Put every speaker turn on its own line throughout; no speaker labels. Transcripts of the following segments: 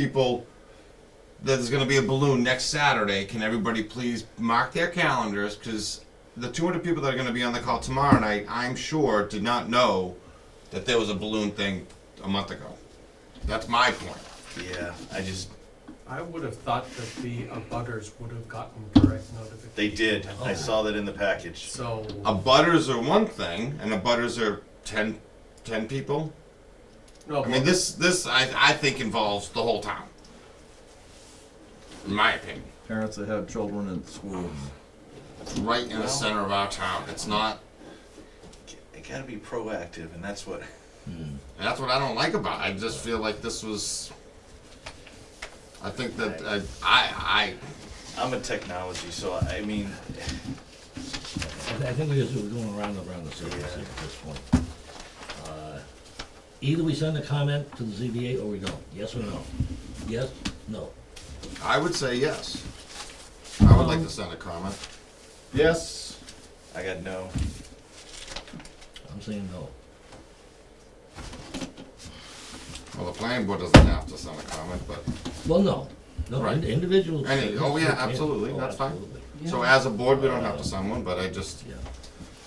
people that there's going to be a balloon next Saturday. Can everybody please mark their calendars? Because the 200 people that are going to be on the call tomorrow night, I'm sure, did not know that there was a balloon thing a month ago. That's my point.
Yeah, I just,
I would have thought that the abutters would have gotten direct notification.
they did.
Oh.
I saw that in the package.
So,
A butters are one thing, and a butters are 10, 10 people.
no,
I mean, this this I, I think involves the whole town. In my opinion,
Parents that have children in schools.
it's right in the center of our town. It's not,
It gotta be proactive, and that's what,
and that's what I don't like about. it. I just feel like this was. I think that I I,
I'm a technology, so I mean,
I I think we're just we're going around and around the circles here at this point. Uh, Either we send a comment to the ZBA or we don't, yes or no? Yes, no.
I I would say yes. I would like to send a comment.
Yes.
I got no.
I'm saying no.
Well, the planning board doesn't have to send a comment, but
Well, no, no,
Right.
ind- individuals.
Any- oh, yeah, absolutely,
Oh,
that's fine.
absolutely.
so as a board, we don't have to send one. But I just
Yeah,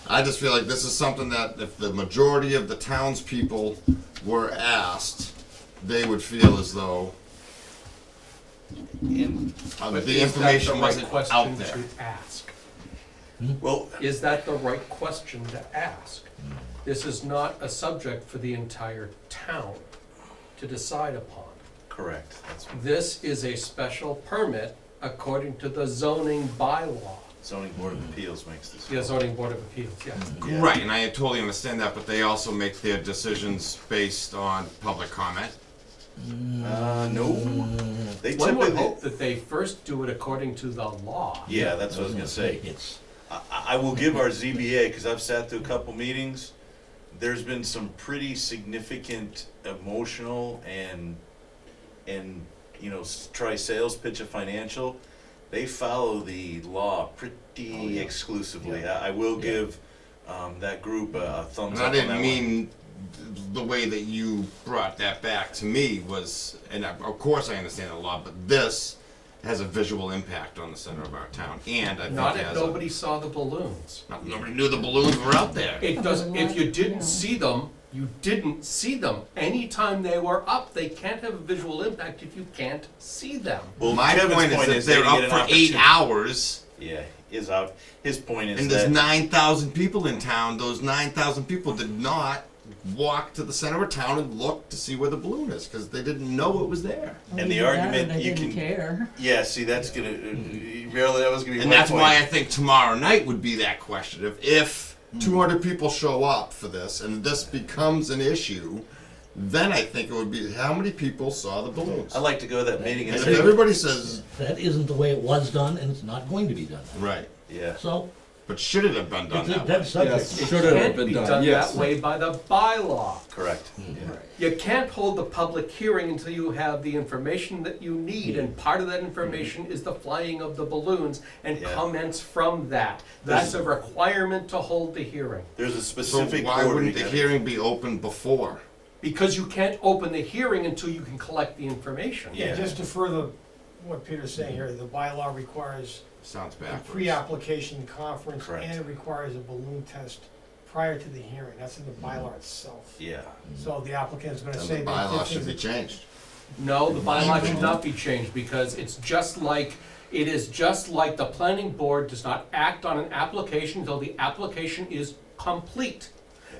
I just feel like this is something that if the majority of the townspeople were asked, they would feel as though
And,
uh,
but
the
is that the
information
right
wasn't
question
out there.
To ask,
well,
is that the right question to ask? This is not a subject for the entire town to decide upon.
correct. That's
This is a special permit according to the zoning bylaw,
zoning board of appeals makes this.
the zoning board of appeals, yeah.
Yeah.
Right, and I totally understand that, but they also make their decisions based on public comment.
Uh, no. They
One would
typically,
hope that they first do it according to the law.
yeah, that's what I was gonna say.
It's,
I, I will give our ZBA, because I've sat through a couple meetings, there's been some pretty significant emotional and, and, you know, s- try sales pitch of financial. They follow the law
Oh, yeah.
pretty exclusively.
Yeah.
I, I will
Yeah.
give, um, that group a a thumbs
And
up
I
on that
didn't
one.
mean th- the way that you brought that back to me was, and I- of course I understand the law, but this has a visual impact on the center of our town, and I think
Not
it
if
has a-
nobody saw the balloons.
Not- Nobody knew the balloons were out there.
It doesn't, if you didn't
Yeah.
see them, you didn't see them. Anytime they were up, they can't have a visual impact if you can't see them.
Well,
My
Kevin's
point is, if
they
they're
didn't
up
get an
for eight
opportunity-
hours,
Yeah, is out, his point is
and there's
that,
nine thousand people in town, those nine thousand people did not walk to the center of town and look to see where the balloon is because they didn't know it was there.
And the
Either that or
argument
they
you can-
didn't care.
yeah, see, that's gonna, really, that was gonna be
Mm-hmm.
my point.
And that's why I think tomorrow night would be that question. If, if
Hmm.
200 people show up for this and this becomes an issue, then I think it would be how many people saw the balloons.
I'd like to go to that meeting
And
and
if
say,
everybody says
that isn't the way it was done and it's not going to be done.
right,
yeah.
So,
but should it have been done that way?
it's- that's subject.
Yes, should have
Can't
been
be
done,
done
yes.
that way by the bylaw.
Correct.
Hmm.
Yeah.
You can't hold the public hearing until you have the information that you need, and part of that information is the flying of the balloons and
Yeah.
comments from that. That's a requirement to hold the hearing,
There's a
So
specific
why
order. you
wouldn't the
gotta-
hearing be open before?
because you can't open the hearing until you can collect the information.
Yeah.
Yeah, just to further what Peter's saying here, the bylaw requires
Sounds
a
backwards.
pre-application conference
Correct.
and it requires a balloon test prior to the hearing. That's in the bylaw itself.
Yeah,
So the applicant's gonna
Then
say
the
that
bylaw
this
should
is
be changed.
No, the
my
bylaw should
opinion.
not be changed because it's just like, it is just like the planning board does not act on an application until the application is complete.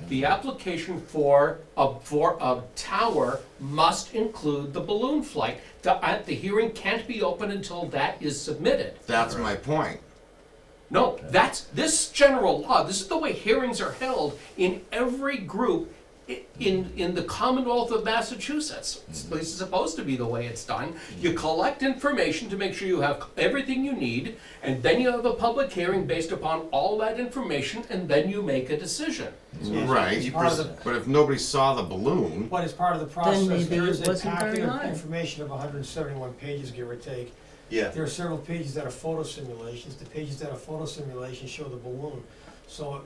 The application for a, for a tower must include the balloon flight. The, uh, the hearing can't be open until that is submitted.
That's my point.
No, that's, this general law, this is the way hearings are held in every group i- in, in the Commonwealth of Massachusetts. It's- This is supposed to be the way it's done. You collect information to make sure you have everything you need, and then you have a public hearing based upon all that information, and then you make a decision.
Right.
It's part of the-
But if nobody saw the balloon,
But as part of the process,
maybe
there
it
is a
wasn't very
packet of
high.
information of hundred and seventy-one pages, give or take.
yeah.
There are several pages that are photo simulations. The pages that are photo simulations show the balloon. So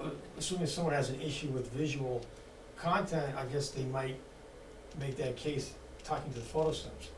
uh, assuming someone has an issue with visual content, I guess they might make that case talking to the photo sims.